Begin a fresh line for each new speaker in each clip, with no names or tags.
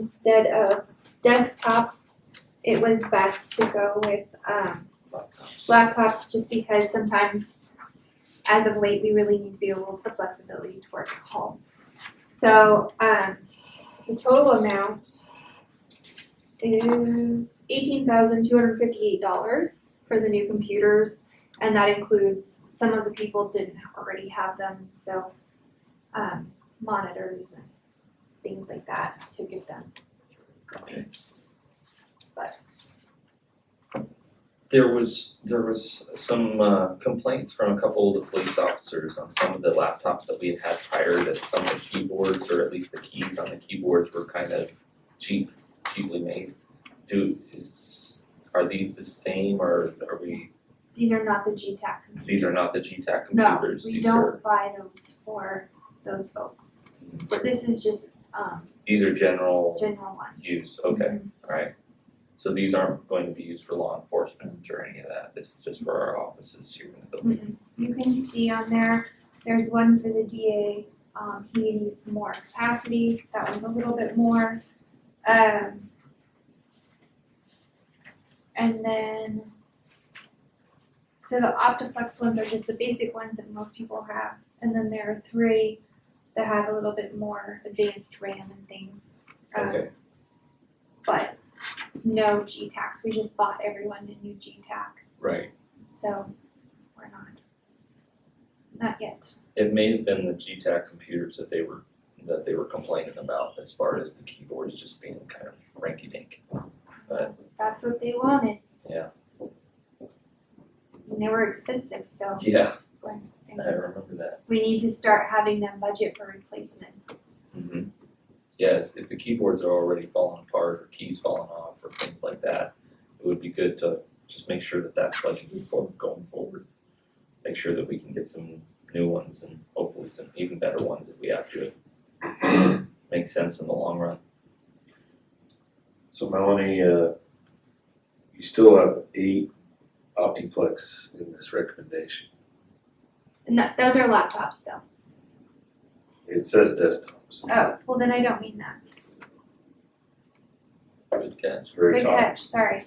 instead of desktops, it was best to go with um, laptops just because sometimes, as of late, we really need to be able the flexibility to work at home. So um, the total amount is $18,258 for the new computers, and that includes some of the people didn't already have them, so um, monitors and things like that to get them going.
There was, there was some uh complaints from a couple of the police officers on some of the laptops that we had had prior that some of the keyboards or at least the keys on the keyboards were kind of cheap, cheaply made. Do, is, are these the same or are we,
These are not the GTAC computers.
these are not the GTAC
No,
computers,
we
these are,
don't buy those for those folks. But this is just um
these are general
general ones.
use, okay, alright. So these aren't going to be used for law enforcement or any of that, this is just for our offices here in the building.
Mhm. You can see on there, there's one for the DA, um he needs more capacity, that one's a little bit more. Um and then so the Optiflex ones are just the basic ones that most people have, and then there are three that have a little bit more advanced RAM and things. Um,
Okay.
But no G-Tacs, we just bought everyone a new G-Tac.
Right.
So we're not. Not yet.
It may have been the GTAC computers that they were, that they were complaining about as far as the keyboards just being kind of ranky dink.
That's what they wanted.
Yeah.
And they were expensive, so
Yeah,
and
I remember that.
we need to start having them budget for replacements.
Mm-hmm. Yes, if the keyboards are already falling apart or keys falling off or things like that, it would be good to just make sure that that's budgeted for going forward. Make sure that we can get some new ones and hopefully some even better ones if we have to. Makes sense in the long run.
So Melanie, uh, you still have eight Optiplex in this recommendation.
And that, those are laptops though.
It says desktops,
Oh, well then I don't mean that.
Good catch.
it's very
Good
top.
catch, sorry.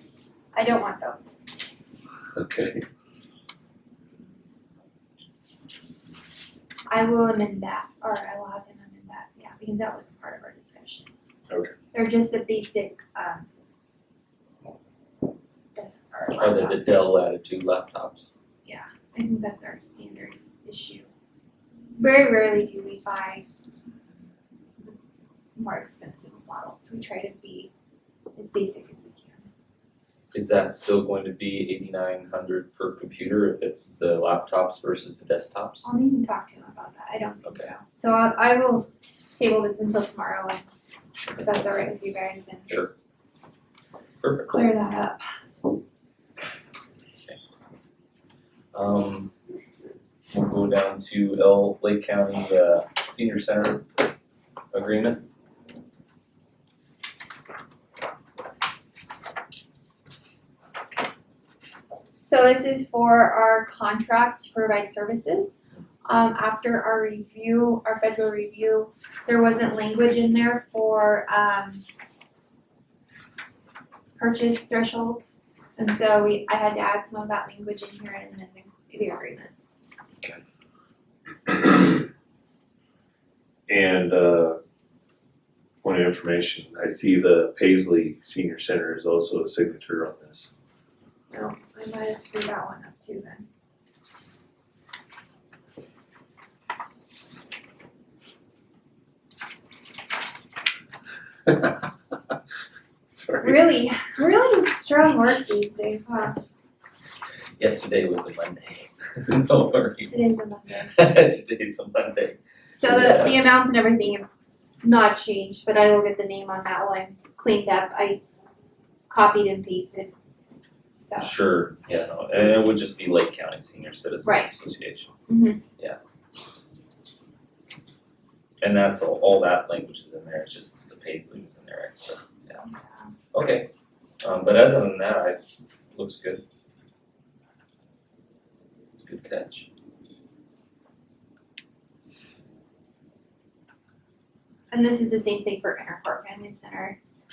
I don't want those.
Okay,
I will amend that, or I will have him amend that, yeah, because that was part of our discussion.
Okay.
They're just the basic, um, desk or
Are they the
laptops.
Dell Latitude laptops?
I think that's our standard issue. Very rarely do we buy the more expensive models. We try to be as basic as we can.
Is that still going to be eighty-nine hundred per computer if it's the laptops versus the desktops?
I'll need to talk to him about that. I don't think so.
Okay.
So I, I will table this until tomorrow and if that's all right with you guys and
Sure. Perfect.
clear that up.
Um, we'll go down to L Lake County uh Senior Center agreement.
So this is for our contract to provide services. Um, after our review, our federal review, there wasn't language in there for, um, purchase thresholds, and so we, I had to add some of that language in here and then the, the agreement.
and, uh, point of information, I see the Paisley Senior Center is also a signature on this.
Well, I might have screwed that one up too then.
Sorry,
Really, really strong work these days, huh?
Yesterday was a Monday. No worries.
Today's a Monday.
Today's a Monday.
So the, the amounts and everything have not changed, but I will get the name on that one cleaned up. I copied and pasted. So,
Sure, yeah, no, and it would just be Lake County Senior Citizens
Right.
Association.
Mhm.
Yeah. And that's all, all that language is in there, it's just the Paisley was in there extra, yeah, okay. Um, but other than that, I, looks good. It's a Good catch.
And this is the same thing for Interport Family Center.